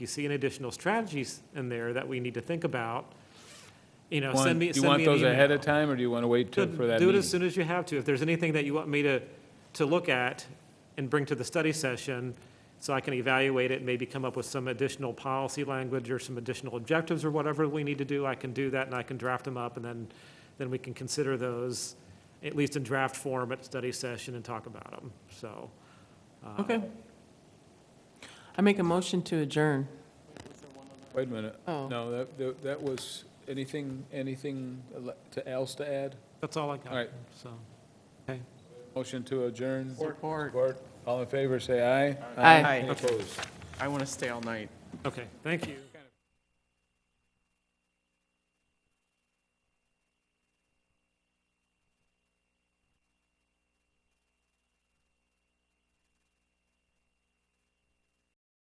you see any additional strategies in there that we need to think about, you know, Want- send me, Do send you me an want email. those ahead of time, or do you want to wait till, Do- for that Do it as meeting? soon as you have to. If there's anything that you want me to, to look at and bring to the study session, so I can evaluate it, maybe come up with some additional policy language or some additional objectives or whatever we need to do, I can do that and I can draft them up and then, then we can consider those, at least in draft form at study session and talk about them, so. uh, Okay. I make a motion to adjourn. Wait a minute. Oh. No, that- that, that was, anything, anything ele- to- else to add? That's all I got. All right. So, Motion to adjourn. Support. Support. All in favor, say aye. Aye. Any Opposed? I want to stay all night. okay, thank you.